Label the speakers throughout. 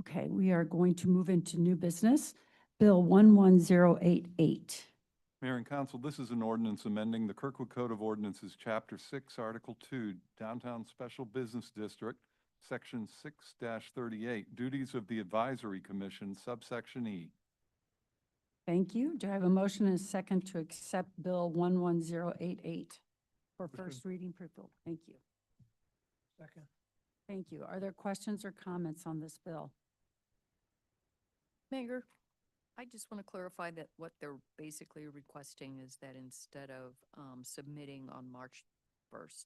Speaker 1: Okay, we are going to move into new business. Bill 11088.
Speaker 2: Mayor and Council, this is an ordinance amending the Kirkwood Code of Ordinances, Chapter 6, Article 2, Downtown Special Business District, Section 6-38, Duties of the Advisory Commission, subsection E.
Speaker 1: Thank you. Do I have a motion and a second to accept Bill 11088 for
Speaker 3: Motion.
Speaker 1: first reading for Bill? Thank you.
Speaker 3: Second.
Speaker 1: Thank you. Are there questions or comments on this bill?
Speaker 4: Mayor, I just want to clarify that what they're basically requesting is that instead of um, submitting on March 1st,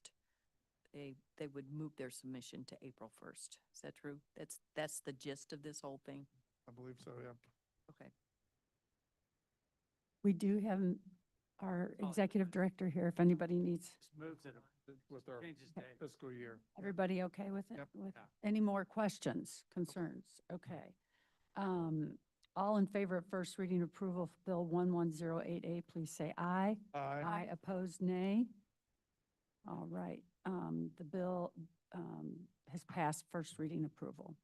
Speaker 4: they, they would move their submission to April 1st. Is that true? That's, that's the gist of this whole thing?
Speaker 3: I believe so, yeah.
Speaker 4: Okay.
Speaker 1: We do have um, our executive director here if anybody needs.
Speaker 5: Just moves it,
Speaker 3: With our
Speaker 5: changes date.
Speaker 3: fiscal year.
Speaker 1: Everybody okay with it?
Speaker 3: Yep.
Speaker 1: With
Speaker 5: Yeah.
Speaker 1: any more questions, concerns? Okay. Um, all in favor of first reading approval of Bill one one zero eight eight, please say aye.
Speaker 3: Aye.
Speaker 1: Aye opposed, nay. All right, um, the bill, um, has passed first reading approval.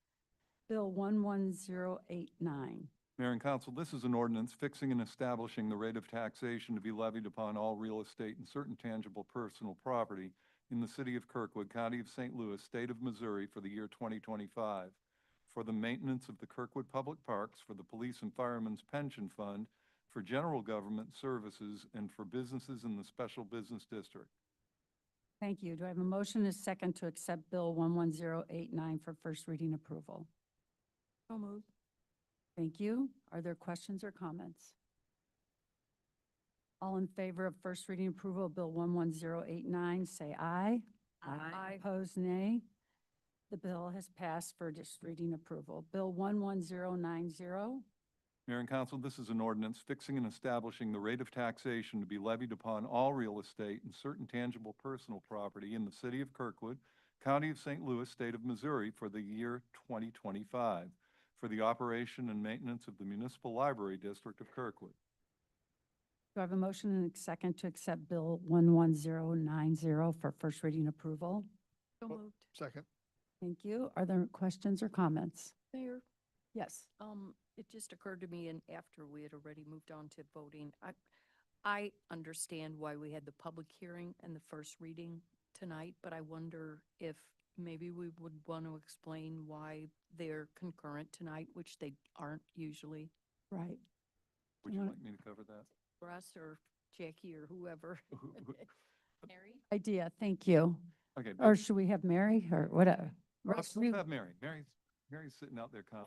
Speaker 1: Bill one one zero eight nine.
Speaker 2: Mayor and Council, this is an ordinance fixing and establishing the rate of taxation to be levied upon all real estate and certain tangible personal property in the city of Kirkwood, county of St. Louis, state of Missouri for the year 2025 for the maintenance of the Kirkwood Public Parks, for the Police and Firemen's Pension Fund, for general government services, and for businesses in the Special Business District.
Speaker 1: Thank you. Do I have a motion and a second to accept Bill one one zero eight nine for first reading approval?
Speaker 4: So moved.
Speaker 1: Thank you. Are there questions or comments? All in favor of first reading approval of Bill 11089, say aye.
Speaker 4: Aye.
Speaker 1: Opposed, nay. The bill has passed for just reading approval. Bill 11090,
Speaker 2: Mayor and Council, this is an ordinance fixing and establishing the rate of taxation to be levied upon all real estate and certain tangible personal property in the city of Kirkwood, county of St. Louis, state of Missouri for the year 2025 for the operation and maintenance of the municipal library district of Kirkwood.
Speaker 1: do I have a motion and a second to accept Bill 11090 for first reading approval?
Speaker 4: So
Speaker 3: Well-
Speaker 4: moved.
Speaker 3: Second.
Speaker 1: Thank you. Are there questions or comments?
Speaker 4: Mayor,
Speaker 1: Yes.
Speaker 4: Um, it just occurred to me, and after we had already moved on to voting, I, I understand why we had the public hearing and the first reading tonight, but I wonder if maybe we would want to explain why they're concurrent tonight, which they aren't usually
Speaker 1: Right.
Speaker 2: Would you
Speaker 1: Wanna-
Speaker 2: like me to cover that?
Speaker 4: for us or Jackie or whoever.
Speaker 2: Who- who-
Speaker 1: Idea. Thank you.
Speaker 2: Okay.
Speaker 1: Or should we have Mary or whatever?
Speaker 2: Let's
Speaker 1: We-
Speaker 2: have Mary. Mary's, Mary's sitting out there calm.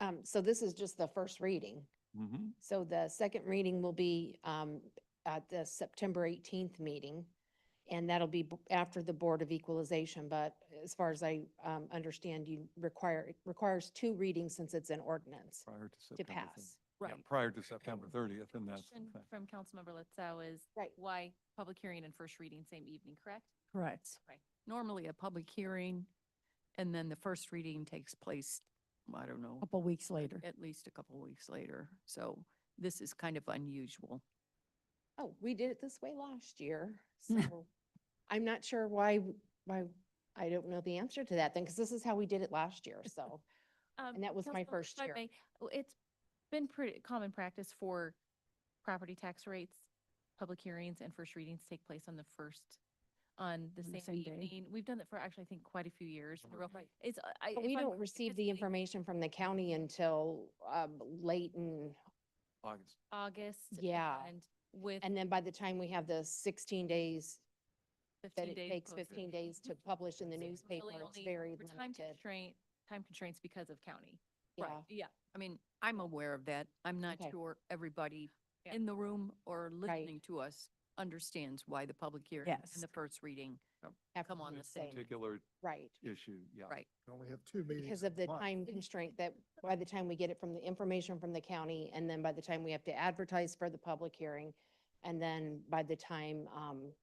Speaker 6: Um, so this is just the first reading.
Speaker 2: hmm
Speaker 6: So the second reading will be, um, at the September eighteenth meeting. And that'll be b- after the Board of Equalization, but as far as I, um, understand, you require, it requires two readings since it's an ordinance
Speaker 2: prior to September.
Speaker 6: to
Speaker 2: 30th.
Speaker 6: pass.
Speaker 2: Yeah,
Speaker 7: Right.
Speaker 2: Prior to September 30th, and that's. the
Speaker 7: Question
Speaker 2: thing.
Speaker 7: from Councilmember Letzow is
Speaker 6: Right.
Speaker 7: why public hearing and first reading same evening, correct?
Speaker 1: Correct.
Speaker 4: Normally a public hearing, and then the first reading takes place, I don't know,
Speaker 1: couple weeks later.
Speaker 4: at least a couple weeks later. So this is kind of unusual.
Speaker 6: Oh, we did it this way last year,
Speaker 7: Hmm.
Speaker 6: so I'm not sure why, why, I don't know the answer to that then, because this is how we did it last year, so.
Speaker 7: Um,
Speaker 6: And that was my
Speaker 7: Councilmember,
Speaker 6: first
Speaker 7: if I
Speaker 6: year.
Speaker 7: may, w- It's been pretty common practice for property tax rates, public hearings and first readings take place on the first, on the
Speaker 1: On the
Speaker 7: same
Speaker 1: same day.
Speaker 7: evening. We've done that for actually, I think, quite a few years. in a row. It's, uh, I.
Speaker 6: But
Speaker 7: if
Speaker 6: we
Speaker 7: I'm-
Speaker 6: don't receive
Speaker 7: it's
Speaker 6: the
Speaker 7: like
Speaker 6: information from the county until, um, late in
Speaker 2: August.
Speaker 7: August.
Speaker 6: Yeah.
Speaker 7: And with
Speaker 6: And then by the time we have the sixteen days, that
Speaker 7: fifteen
Speaker 6: it
Speaker 7: days.
Speaker 6: takes
Speaker 7: posted.
Speaker 6: fifteen days to publish in the
Speaker 7: So really
Speaker 6: newspaper, it's
Speaker 7: only-
Speaker 6: very
Speaker 7: we're Time
Speaker 6: limited.
Speaker 7: constraint, time constraints because of county.
Speaker 6: Yeah,
Speaker 7: Right, yeah.
Speaker 4: I mean, I'm aware of that. I'm not
Speaker 6: Okay.
Speaker 4: sure everybody
Speaker 7: Yeah.
Speaker 4: in the room or listening to us understands why the public hearing
Speaker 1: Yes.
Speaker 4: and the first reading
Speaker 6: have
Speaker 4: come
Speaker 6: to
Speaker 4: on
Speaker 6: do
Speaker 4: the
Speaker 6: it
Speaker 4: same.
Speaker 2: Particular
Speaker 6: Right,
Speaker 2: issue, yeah.
Speaker 4: Right.
Speaker 3: We Only have two meetings.
Speaker 6: because of the time constraint that by the time we get it from the information from the county and then by the time we have to advertise for the public hearing and then by the time, um,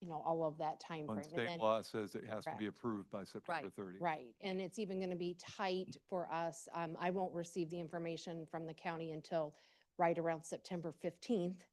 Speaker 6: you know, all of that time
Speaker 2: On
Speaker 6: timeframe. and
Speaker 2: state
Speaker 6: then-
Speaker 2: law, it says it has to be
Speaker 6: Correct.
Speaker 2: approved by September 30th.
Speaker 6: Right, and it's even going to be tight for us. Um, I won't receive the information from the county until right around September fifteenth.